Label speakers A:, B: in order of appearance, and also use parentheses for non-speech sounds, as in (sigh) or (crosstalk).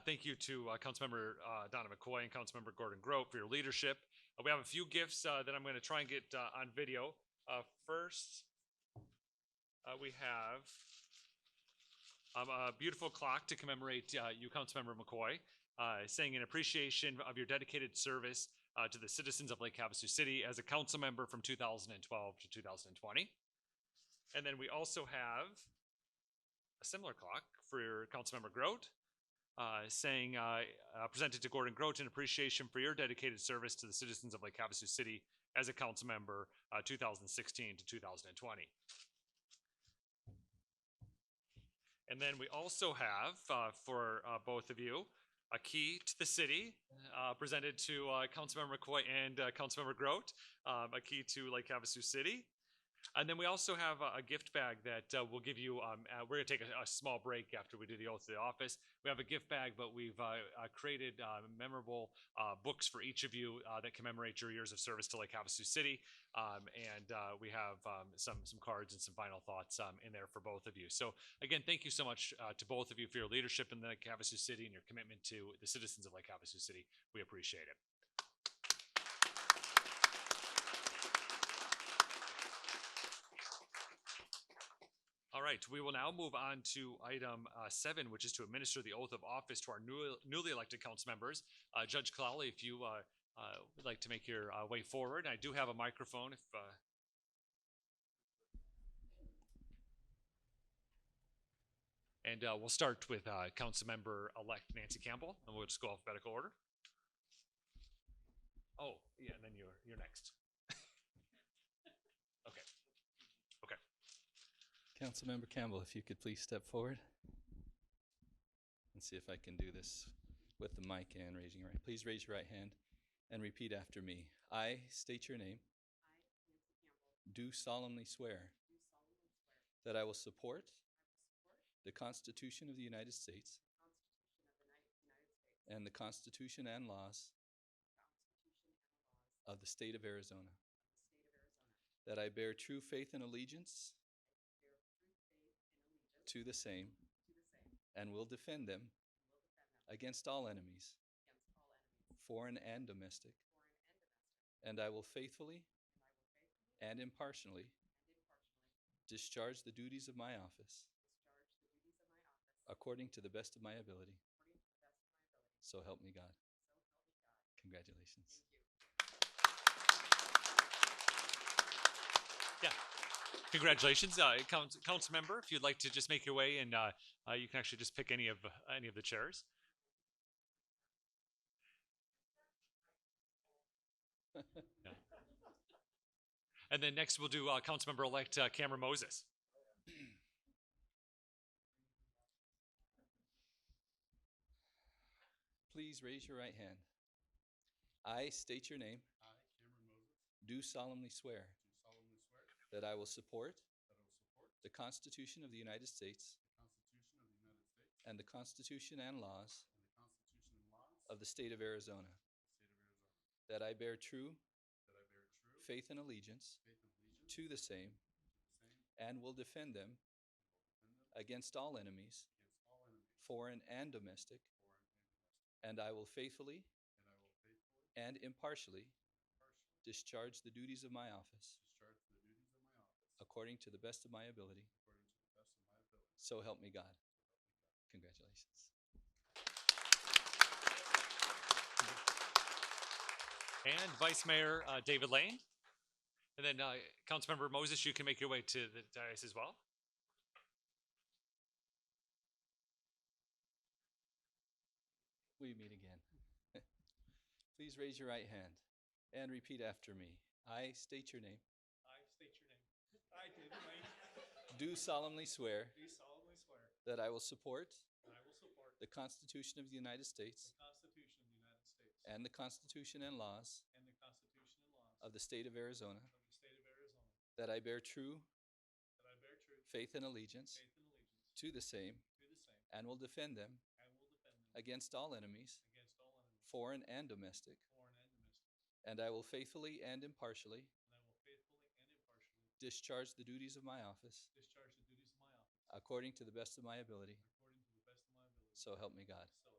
A: thank you to uh, Councilmember uh, Donna McCoy and Councilmember Gordon Grope for your leadership. Uh, we have a few gifts uh, that I'm going to try and get uh, on video. Uh, first, uh, we have um, a beautiful clock to commemorate uh, you, Councilmember McCoy, uh, saying in appreciation of your dedicated service uh, to the citizens of Lake Havasu City as a council member from 2012 to 2020. And then we also have a similar clock for Councilmember Grote, uh, saying, uh, uh, presented to Gordon Grote in appreciation for your dedicated service to the citizens of Lake Havasu City as a council member, uh, 2016 to 2020. And then we also have, uh, for uh, both of you, a key to the city, uh, presented to uh, Councilmember McCoy and uh, Councilmember Grote, um, a key to Lake Havasu City. And then we also have a, a gift bag that uh, we'll give you. Um, uh, we're going to take a, a small break after we do the oath of the office. We have a gift bag, but we've uh, uh, created uh, memorable uh, books for each of you uh, that commemorate your years of service to Lake Havasu City. Um, and uh, we have um, some some cards and some final thoughts um, in there for both of you. So again, thank you so much uh, to both of you for your leadership in the Lake Havasu City and your commitment to the citizens of Lake Havasu City. We appreciate it. All right, we will now move on to item uh, seven, which is to administer the oath of office to our newly, newly elected council members. Uh, Judge Clowley, if you uh, uh, would like to make your uh, way forward, I do have a microphone if. Uh, and uh, we'll start with uh, council member elect Nancy Campbell, and we'll just go alphabetical order. Oh, yeah, and then you're, you're next.
B: Councilmember Campbell, if you could please step forward and see if I can do this with the mic and raising your right. Please raise your right hand and repeat after me. I state your name,
C: I, Nancy Campbell,
B: do solemnly swear
C: do solemnly swear
B: that I will support
C: I
B: the Constitution of the United States
C: will
B: and the Constitution and laws of the state of Arizona, that I bear true faith and allegiance to the same and will defend them against all enemies, foreign and domestic, and I will faithfully and impartially discharge the duties of my office according to the best of my ability. So help me God. Congratulations.
A: Congratulations, uh, council, council member. If you'd like to just make your way, and uh, uh, you can actually just pick any of uh, any of the chairs. Yeah. And then next, we'll do uh, council member elect uh, Cameron Moses.
B: Please raise your right hand. I state your name,
D: I, Cameron Moses,
B: do solemnly swear
D: do solemnly swear that
B: that I will support
D: I will support
B: the Constitution of the United States
D: the Constitution of the United States
B: and the Constitution and laws
D: and the Constitution and laws
B: of
D: of the
B: the state of Arizona,
D: State of Arizona,
B: that I bear true
D: that I bear true faith
B: faith and allegiance
D: and allegiance
B: to
D: to
B: the same
D: the same
B: and will defend them
D: and will defend them
B: against all enemies,
D: against all enemies,
B: foreign and domestic,
D: foreign and domestic,
B: and I will faithfully
D: and I will faithfully,
B: and impartially
D: impartially
B: discharge the duties of my office
D: discharge the duties of my office
B: according to the best of my ability.
D: according to the best of
B: So
D: my ability.
B: help me God. Congratulations.
A: and Vice Mayor uh, David Lane. And then uh, Councilmember Moses, you can make your way to the dais as well.
B: We meet again. (laughs) Please raise your right hand and repeat after me. I state your name,
D: I state your name. I, David Lane,
B: do solemnly swear
D: (laughs) do solemnly swear
B: that I will support
D: that I will support
B: the Constitution of the United States
D: Constitution of the United States
B: and the Constitution and laws
D: and the Constitution and laws
B: of the state of Arizona,
D: the State of Arizona,
B: that I bear true
D: that I bear true
B: faith and allegiance
D: and allegiance
B: to the same
D: to the same
B: and will defend them
D: and will defend them
B: against all enemies,
D: against all enemies,
B: foreign and domestic,
D: foreign and domestic,
B: and I will faithfully and impartially
D: and I will faithfully and impartially
B: discharge the duties of my office
D: discharge the duties of my office
B: according to the best of my ability.
D: according to the best
B: So
D: of my ability.
B: help me God.
D: So